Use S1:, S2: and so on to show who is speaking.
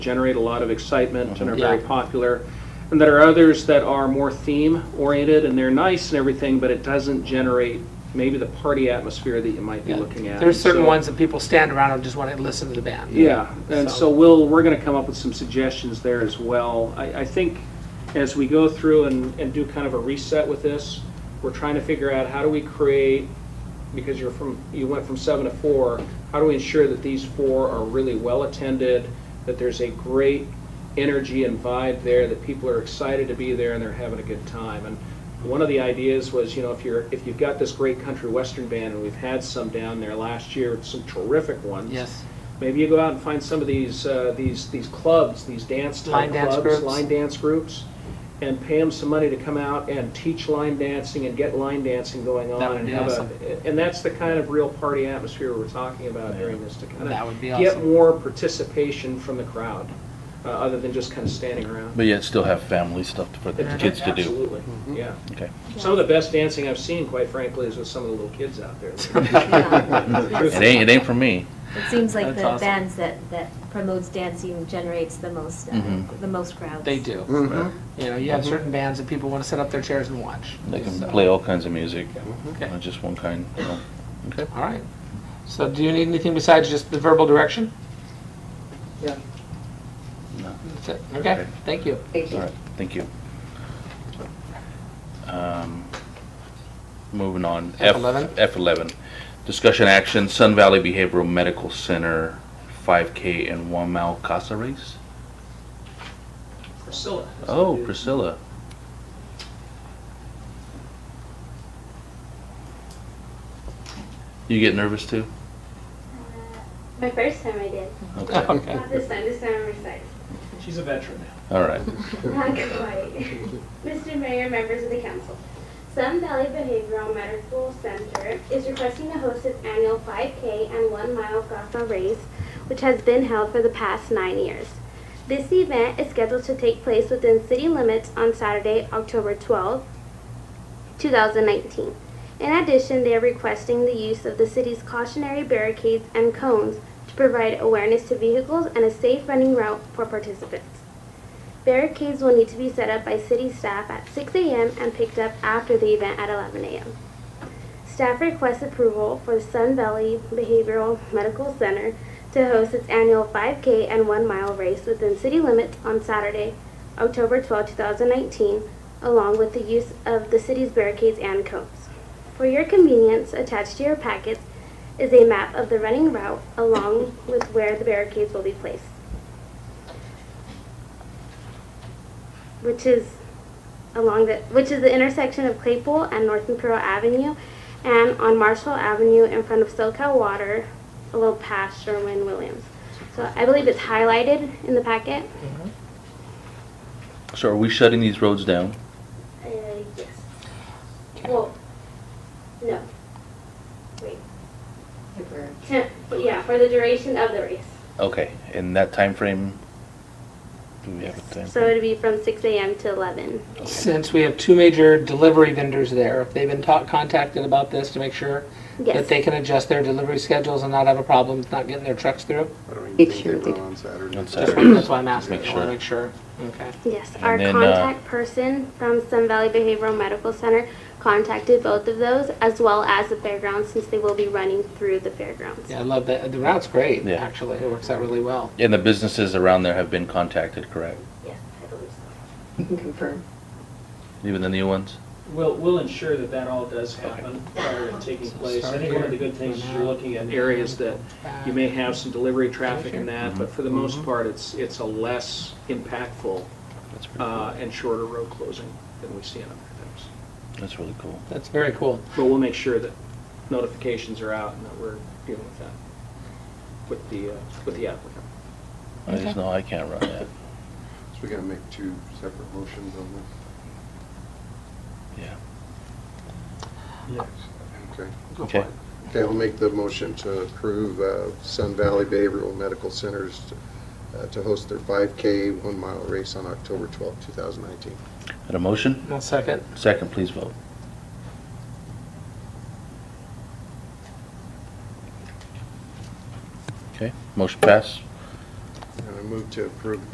S1: generate a lot of excitement and are very
S2: Mhm. Yeah.
S1: popular. And there are others that are more theme oriented and they're nice and everything, but it doesn't generate maybe the party atmosphere that you might be
S2: Yeah.
S1: looking at.
S2: There's certain
S1: So-
S2: ones that people stand around and just want to listen to the band.
S1: Yeah, and
S2: So-
S1: so we'll, we're gonna come up with some suggestions there as well. I, I think as we go through and, and do kind of a reset with this, we're trying to figure out how do we create, because you're from, you went from seven to four, how do we ensure that these four are really well-attended, that there's a great energy and vibe there, that people are excited to be there and they're having a good time? And one of the ideas was, you know, if you're, if you've got this great country western band, and we've had some down there last year, some terrific ones.
S2: Yes.
S1: Maybe you go out and find some of these, uh, these, these clubs, these dance type
S2: Line dance
S1: clubs,
S2: groups.
S1: line dance groups, and pay them some money to come out and teach line dancing and get line dancing going
S2: That
S1: on
S2: would
S1: and
S2: be
S1: have
S2: awesome.
S1: a, and that's the kind of real party atmosphere we're talking about during this to kind
S2: That would
S1: of
S2: be
S1: get
S2: awesome.
S1: more participation from the crowd, uh, other than just kind of standing around.
S3: But yet still have family stuff for the kids to do.
S1: Absolutely,
S2: Mm-hmm.
S1: yeah.
S3: Okay.
S1: Some of the best dancing I've seen, quite frankly, is with some of the little kids out there.
S3: It ain't, it ain't for me.
S4: It seems like
S2: That's
S4: the
S2: awesome.
S4: bands that, that promotes dancing generates the most, uh,
S3: Mhm.
S4: the most
S2: Mm-hmm.
S4: crowds.
S2: They do.
S1: Mm-hmm.
S2: You know, you have certain bands that people want to sit up their chairs and watch.
S3: They can
S2: So-
S3: play all kinds of music,
S2: Okay.
S3: not just one kind. you know. Okay.
S2: All right. So do you need anything besides just the verbal direction?
S1: Yeah.
S3: No.
S2: That's it.
S3: Okay.
S2: Okay, thank you.
S3: All right, thank you. Um, Moving on.
S2: F11?
S3: F11. Discussion action, Sun Valley Behavioral Medical Center, 5K and 1 mile casa race?
S1: Priscilla.
S3: Oh, Priscilla. You get nervous too?
S5: My first time I did.
S3: Okay,
S2: Okay.
S5: Not this time, this time I'm excited.
S1: She's a veteran now.
S3: all right.
S5: Not quite. Mr. Mayor, members of the council. Sun Valley Behavioral Medical Center is requesting to host its annual 5K and 1 mile Gotham race, which has been held for the past nine years. This event is scheduled to take place within city limits on Saturday, October 12, 2019. In addition, they are requesting the use of the city's cautionary barricades and cones to provide awareness to vehicles and a safe running route for participants. Barricades will need to be set up by city staff at 6 a.m. and picked up after the event at 11 a.m. Staff requests approval for the Sun Valley Behavioral Medical Center to host its annual 5K and 1 mile race within city limits on Saturday, October 12, 2019, along with the use of the city's barricades and cones. For your convenience, attached to your packets is a map of the running route along with where the barricades will be placed. which is along the which is the intersection of Claypool and North Imperial Avenue, and on Marshall Avenue in front of SoCal Water, a little past Sherwin Williams. So I believe it's highlighted in the packet.
S3: So are we shutting these roads down?
S5: Uh, yes. Well, no. Wait. Temp, yeah, for the duration of the race.
S3: Okay, in that time frame, do we have a time?
S5: So it'd be from 6 a.m. to 11.
S2: Since we have two major delivery vendors there, if they've been ta- contacted about this to make sure that
S5: Yes.
S2: they can adjust their delivery schedules and not have a problem with not getting their trucks through?
S6: I don't even
S7: Make
S6: think
S7: sure
S6: they
S7: they
S6: will on Saturday.
S3: On Saturday.
S2: That's why- that's why I'm asking.
S3: Make
S2: I want
S3: sure.
S2: to make sure. Okay.
S5: Yes,
S3: And
S5: our
S3: then, uh,
S5: contact person from Sun Valley Behavioral Medical Center contacted both of those as well as the fairgrounds since they will be running through the fairgrounds.
S2: Yeah, I love that. The route's great,
S3: Yeah.
S2: actually. It works out really well.
S3: And the businesses around there have been contacted, correct?
S5: Yes, I believe
S7: Can confirm.
S3: Even the new ones?
S8: We'll, we'll ensure that that all does happen prior to taking place. I think one of the good things is you're looking at
S1: areas that
S2: uh,
S1: you may have some delivery traffic in that, but for the most part, it's, it's a less impactful
S3: That's pretty cool.
S1: uh, and shorter road closing than we see in other things.
S3: That's really cool.
S2: That's very cool.
S1: But we'll make sure that notifications are out and that we're dealing with that, with the, uh, with the applicant.
S3: I just know I can't run that.
S6: So we gotta make two separate motions on this?
S3: Yeah.
S6: Okay.
S2: Go for
S3: Okay.
S2: it.
S6: Okay, I'll make the motion to approve uh, Sun Valley Behavioral Medical Centers uh, to host their 5K one-mile race on October 12, 2019.
S3: Got a motion?
S2: One second.
S3: Second, please vote. Okay, motion pass.
S6: And I'm move to approve the